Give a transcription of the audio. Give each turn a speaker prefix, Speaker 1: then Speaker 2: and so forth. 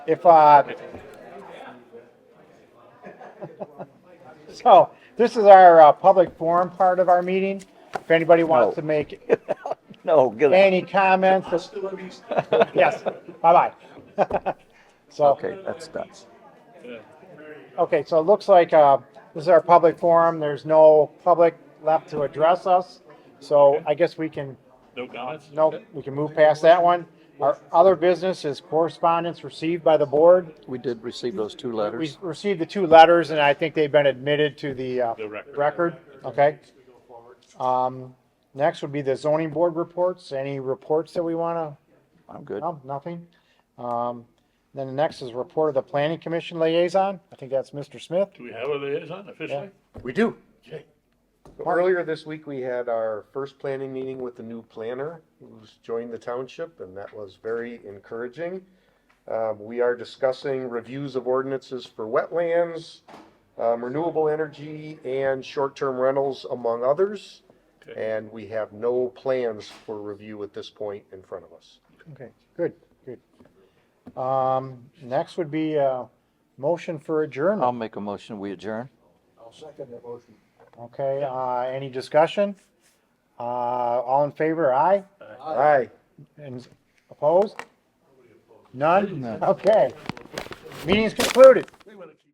Speaker 1: If, uh, so this is our uh, public forum part of our meeting. If anybody wants to
Speaker 2: No.
Speaker 1: make
Speaker 2: No, good.
Speaker 1: any comments, yes, bye-bye. So,
Speaker 2: Okay, that's done.
Speaker 1: okay, so it looks like, uh, this is our public forum. There's no public left to address us. So I guess we can
Speaker 3: No comments?
Speaker 1: Nope, we can move past that one. Our other business is correspondence received by the board.
Speaker 2: We did receive those two
Speaker 1: We
Speaker 2: letters.
Speaker 1: received the two letters and I think they've been admitted to the uh,
Speaker 3: The record.
Speaker 1: record, okay? Um, Next would be the zoning board reports. Any reports that we want
Speaker 2: I'm
Speaker 1: to,
Speaker 2: good.
Speaker 1: no, nothing? Um, Then the next is report of the planning commission liaison. I think that's Mr. Smith.
Speaker 3: Do we have a liaison officially?
Speaker 4: We do.
Speaker 3: Okay.
Speaker 4: Earlier this week, we had our first planning meeting with the new planner who's joined the township, and that was very encouraging. Um, we are discussing reviews of ordinances for wetlands, um, renewable energy, and short-term rentals, among others.
Speaker 3: Okay.
Speaker 4: And we have no plans for review at this point in front of us.
Speaker 1: Okay, good, good. Um, Next would be uh motion for adjournment.
Speaker 2: I'll make a motion, we adjourn.
Speaker 1: Okay, uh, any discussion? Uh, all in favor, aye?
Speaker 4: Aye.
Speaker 1: And opposed? None?
Speaker 2: None.
Speaker 1: Okay. Meeting's concluded.